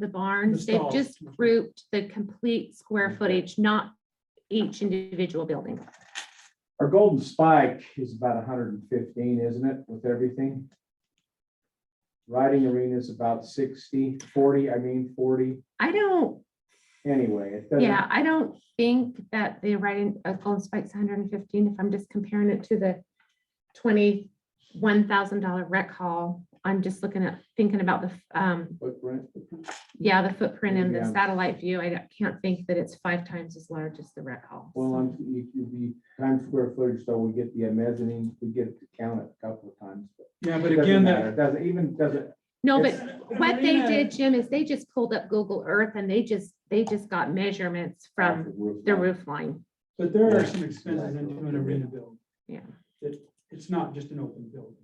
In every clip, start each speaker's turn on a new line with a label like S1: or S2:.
S1: the barns,
S2: The
S1: they've
S2: stalls. Mm-hmm.
S1: just grouped the complete square
S2: Okay.
S1: footage, not each individual building.
S2: Our golden spike is about hundred and fifteen, isn't it, with everything? Riding arena is about 60, 40. I mean forty,
S1: I don't,
S2: anyway, it doesn't.
S1: yeah, I don't think that the writing of Golden Spike's hundred and fifteen, if I'm just comparing it to the twenty-one thousand dollar rec hall, I'm just looking at, thinking about the, um,
S2: footprint.
S1: yeah, the footprint and the
S2: Yeah.
S1: satellite view. I don't- can't think that it's five times as large as the rec hall.
S2: Well, um,
S1: so.
S2: I'm, you, you, the times square footage, so we get the mezzanine, we get to count it a couple of times. but
S3: Yeah,
S2: it
S3: but
S2: doesn't
S3: again,
S2: matter.
S3: that.
S2: It Doesn't even, doesn't,
S1: No, but
S2: It's-
S1: what they
S3: Arena-
S1: did, Jim, is they just pulled up Google Earth and they just, they just got measurements from the
S2: line.
S1: roof line.
S3: But there are some expenses into an arena build.
S1: Yeah.
S3: That, it's not just an open building.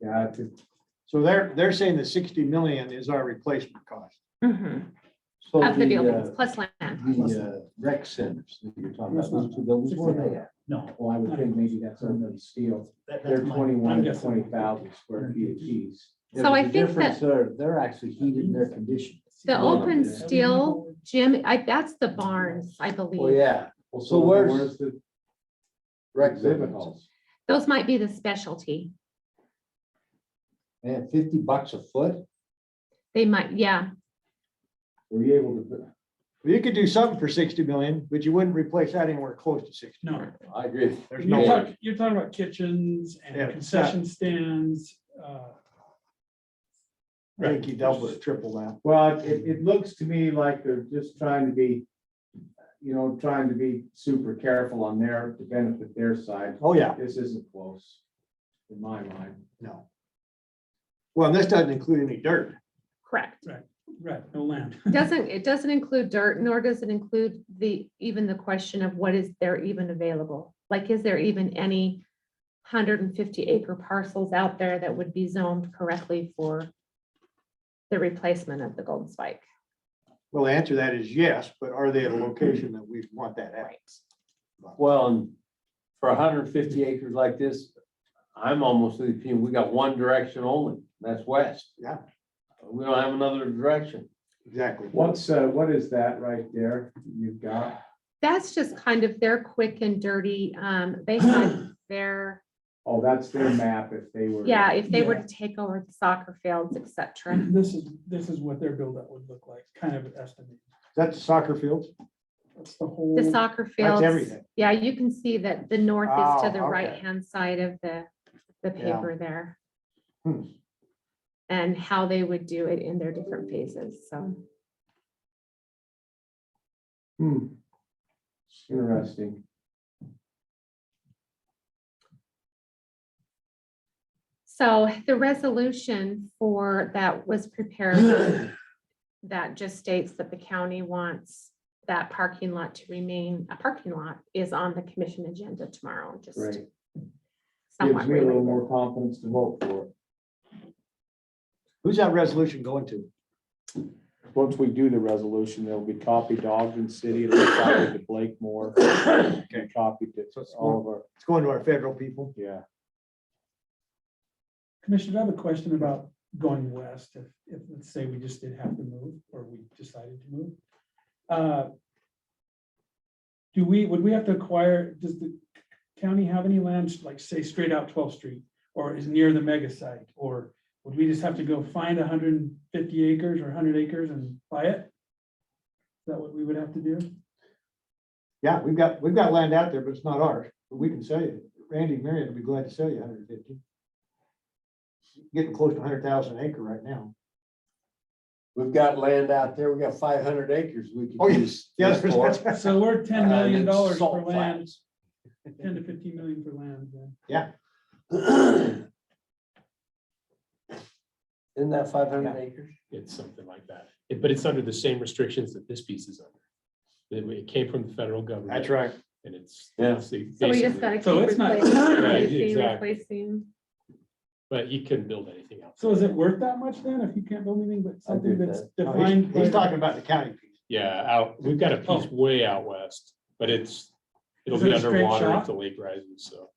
S2: Yeah, it's just-
S4: So they're, they're saying the sixty million is our replacement cost.
S1: Mhm.
S5: So
S1: Of the
S5: uh,
S1: buildings, plus land.
S5: The uh, rec centers that you're talking about, those two buildings, where are they at?
S6: No,
S2: well, I would think maybe that's under the steel.
S6: that-
S2: They're
S6: that's my,
S2: twenty-one
S3: I'm
S2: to
S3: guessing.
S2: twenty thousand square feet apiece.
S5: Yeah,
S1: So
S5: but
S1: I
S5: the
S1: think
S5: difference They're, they're actually heated and they're conditioned.
S1: The
S5: Well,
S1: open
S5: yeah.
S1: steel, Jim, I, that's the barns, I
S5: Well,
S1: believe.
S5: Oh, yeah,
S2: Oh, Well,
S5: So where's-
S2: the
S5: rec
S2: exhibit
S5: centers.
S2: halls?
S1: Those might be the specialty.
S5: And fifty bucks a foot?
S1: They might, yeah,
S2: Were you able to,
S4: Well, You could do something for sixty million, but you wouldn't replace that anywhere close to sixty.
S3: No.
S5: I agree.
S4: There's
S3: You're
S4: no,
S3: talking, you're talking about kitchens and
S4: Yeah.
S3: concession stands, uh,
S4: I think you dealt with triple that.
S2: well, it, it looks to me like they're just trying to be, you know, trying to be super careful on their, to benefit their side.
S4: Oh, yeah,
S2: This isn't close, in my mind.
S4: no. Well, this doesn't include any dirt.
S1: correct.
S3: right, no land.
S1: Doesn't, it doesn't include dirt, nor does it include the, even the question of what is there even available? Like, is there even any hundred and fifty acre parcels out there that would be zoned correctly for the replacement of the golden spike?
S4: Well, the answer to that is yes, but are they at a location that we want that at?
S5: Well, and for hundred and fifty acres like this, I'm almost of the opinion, we got one direction only, and that's west.
S4: Yeah.
S5: We don't have another direction.
S4: Exactly.
S2: What's, uh, what is that right there you've got?
S1: That's just kind of their quick and dirty, um, they had their,
S2: Oh, that's their map if they were.
S1: yeah, if they were to take over the soccer fields, et
S4: Mm-hmm.
S1: cetera.
S3: This is, this is what their buildup would look like, kind of an estimate.
S4: That's soccer fields.
S3: That's the whole.
S1: The soccer fields,
S4: everything.
S1: yeah, you can see that the north is to
S4: Oh,
S1: the
S4: okay.
S1: right-hand side of the, the
S4: Yeah.
S1: paper there.
S4: Hmm.
S1: And how they would do it in their different phases, so.
S2: Hmm. Interesting.
S1: So the resolution for that was prepared. That just states that the county wants that parking lot to remain a parking lot is on the commission agenda tomorrow, just
S2: Right. Gives
S1: somewhat
S2: me a little
S1: related.
S2: more confidence to vote for it.
S4: Who's that resolution going to?
S2: Once we do the resolution, there'll be copy to Ogden City, it'll be copied to Blakemore, and copied to all of our,
S4: It's going to our federal people.
S2: yeah.
S3: Commissioner, I have a question about going west, if, if, let's say we just did have to move, or we decided to move. Uh, Do we, would we have to acquire, does the county have any land, like say straight out twelfth street, or is near the mega site? Or would we just have to go find hundred and fifty acres or hundred acres and buy it? Is that what we would have to do?
S4: Yeah, we've got, we've got land out there, but it's not ours, but we can sell you. Randy Marion would be glad to sell you hundred and fifty. Getting close to hundred thousand acre right now.
S5: We've got land out there, we got five hundred acres we
S4: Oh,
S5: could
S4: yeah.
S5: use.
S4: Yeah,
S5: use for.
S4: that's- that's-
S3: So we're ten million
S5: And it's
S3: dollars for
S5: salt
S3: land,
S5: flats.
S3: ten to fifteen million for land, then.
S5: Isn't that five hundred
S4: Yeah.
S5: acres?
S7: It's something like that. It- But it's under the same restrictions that this piece is under. That It came from the federal government.
S4: That's right.
S7: And it's.
S5: Yeah.
S7: it's the-
S1: So we just
S7: basically-
S1: gotta keep
S3: So it's not-
S1: replacing,
S7: Right,
S1: replacing,
S7: exactly.
S1: replacing.
S7: But you couldn't build anything else.
S3: So is it worth that much then, if you can't build anything but something
S5: agree with
S3: that's
S4: No,
S3: defined?
S4: He's he's
S3: by-
S4: talking about the county piece.
S7: Yeah, out, we've got a piece way out west, but it's, it'll
S3: Oh. Is it
S7: be
S3: a straight
S7: underwater
S3: shot?
S7: if the lake rises, so.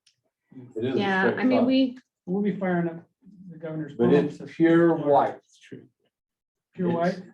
S5: It is a
S1: Yeah,
S5: strip
S1: I mean,
S5: club,
S1: we,
S3: We'll be firing up the governor's.
S5: But
S3: pumps
S5: it's
S3: if-
S5: pure white.
S7: It's true.
S3: pure
S5: It's-
S3: white?